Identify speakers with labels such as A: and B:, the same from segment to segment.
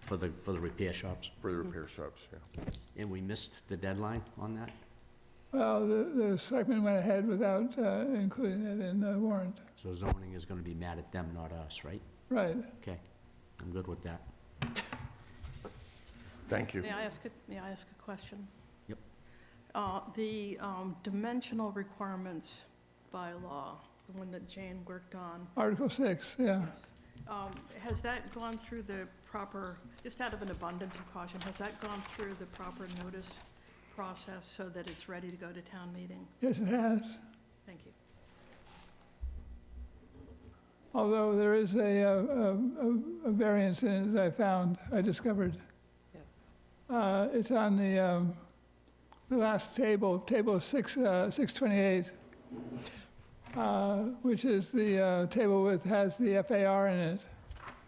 A: for the, for the repair shops?
B: for the repair shops, yeah.
A: And we missed the deadline on that?
C: Well, the, the selectmen went ahead without uh, including it in the warrant.
A: So zoning is gonna be mad at them, not us, right?
C: Right.
A: Okay, I'm good with that.
B: Thank you.
D: May I ask, a- may I ask a question?
A: Yep.
D: Uh, The um, dimensional requirements by law, the one that Jane worked on,
C: Article 6, yeah.
D: um, has that gone through the proper, just out of an abundance of caution, has that gone through the proper notice process so that it's ready to go to town meeting?
C: Yes, it has.
D: Thank you.
C: Although there is a, uh, a, a, a variance in it that I found, I discovered. Uh, it's on the, um, the last table, table six, uh, six twenty-eight, uh, which is the, uh, table with, has the FAR in it.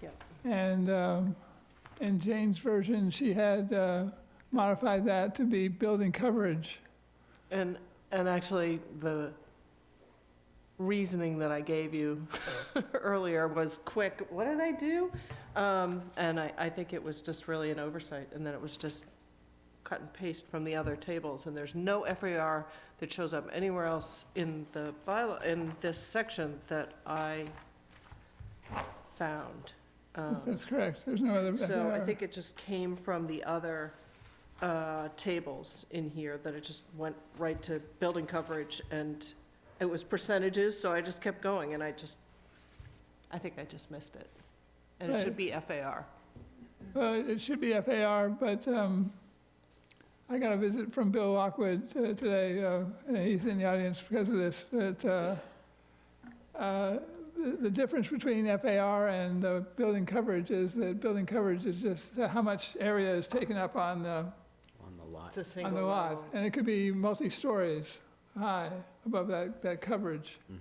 E: Yep.
C: And, um, in Jane's version, she had, uh, modified that to be building coverage.
E: And, and actually, the reasoning that I gave you earlier was quick, what did I do? Um, And I, I think it was just really an oversight, and then it was just cut and paste from the other tables, and there's no FAR that shows up anywhere else in the bylaw, in this section that I found. Um,
C: That's correct, there's no other
E: so I
C: FAR.
E: think it just came from the other uh, tables in here, that it just went right to building coverage, and it was percentages, so I just kept going, and I just, I think I just missed it. And it should
C: Right.
E: be FAR.
C: Well, it it should be FAR, but um, I got a visit from Bill Lockwood uh, today, uh, and he's in the audience because of this, that uh, uh, the the difference between FAR and uh, building coverage is that building coverage is just how much area is taken up on the,
A: On the lot.
E: It's a
C: on
E: single
C: the lot.
E: level.
C: And it could be multi-stories high above that, that coverage.
A: Mhm.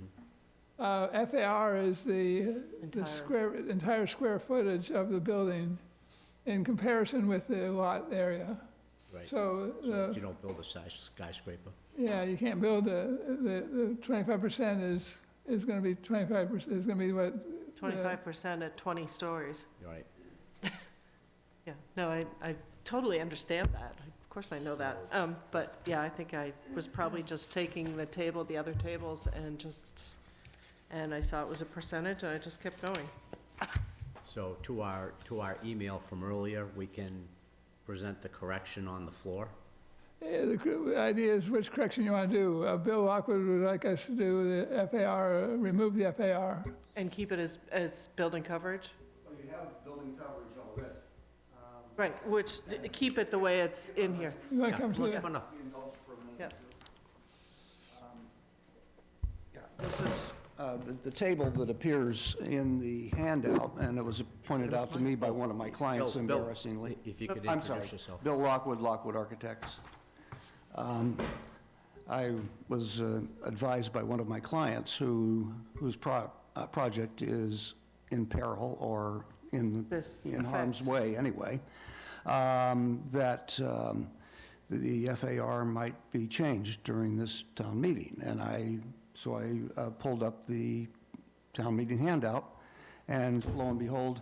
C: Uh, FAR is the the
E: Entire.
C: square, entire square footage of the building in comparison with the lot area.
A: Right.
C: So, uh,
A: So
C: the-
A: you don't build a size skyscraper.
C: yeah, you can't build a, the, the twenty-five percent is, is gonna be twenty-five percent, is gonna be what,
E: 25% at 20 stories.
A: All right.
E: Yeah, no, I, I totally understand that. Of course I know that. Um, But, yeah, I think I was probably just taking the table, the other tables, and just, and I saw it was a percentage, and I just kept going.
A: So to our, to our email from earlier, we can present the correction on the floor?
C: eh, the cr- idea is which correction you wanna do. Uh, Bill Lockwood would like us to do the FAR, uh, remove the FAR.
E: And keep it as, as building coverage?
F: Well, you have building coverage already. Um,
E: Right, which, keep it the way it's in here.
C: You wanna
A: Yeah,
C: come to
A: look,
C: the-
A: no, no.
F: we indulge for a Um, minute.
E: Yeah.
F: Yeah, this is, uh, the- the table that appears in the handout, and it was pointed out to me by one of my clients
A: Bill, Bill,
F: embarrassingly.
A: If you could
F: I'm sorry.
A: introduce yourself.
F: Bill Lockwood, Lockwood Architects. Um, I was uh, advised by one of my clients who, whose pro- uh, project is in peril or in
E: This
F: in harm's
E: affects-
F: way, anyway, um, that um, the FAR might be changed during this town meeting. And I, so I uh, pulled up the town meeting handout, and lo and behold,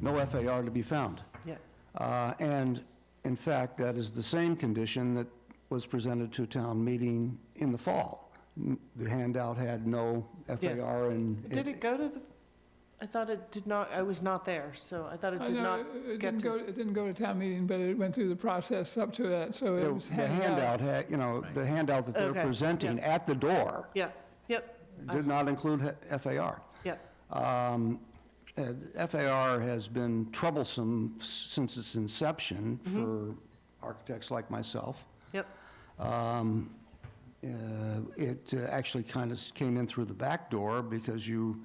F: no FAR to be found.
E: Yeah.
F: Uh, And in fact, that is the same condition that was presented to town meeting in the fall. N- The handout had no FAR and.
E: Did it go to the, I thought it did not, I was not there, so I thought it
C: I
E: did
C: know,
E: not.
C: it- it
E: get
C: didn't
E: to-
C: go, it didn't go to town meeting, but it went through the process up to that, so
F: The
C: it was
F: the
C: handed out.
F: handout had, you know, the handout that
E: Okay,
F: they're
E: yeah.
F: presenting at the door
E: Yeah, yep,
F: did not include ha- FAR.
E: yep.
F: Um, uh, FAR has been troublesome s- since its inception
E: Mm-hmm.
F: for architects like myself.
E: Yep.
F: Um, uh, It uh, actually kind of came in through the back door because you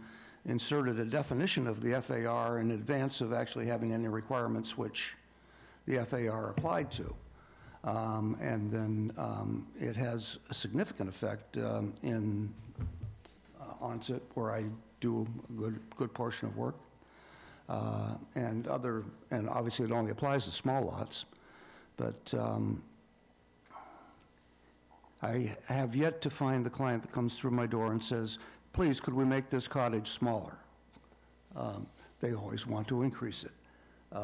F: inserted a definition of the FAR in advance of actually having any requirements which the FAR applied to. Um, And then um, it has a significant effect um, in uh, onset where I do a good, good portion of work. Uh, And other, and obviously it only applies to small lots, but um, I have yet to find the client that comes through my door and says, please, could we make this cottage smaller? Um, They always want to increase it.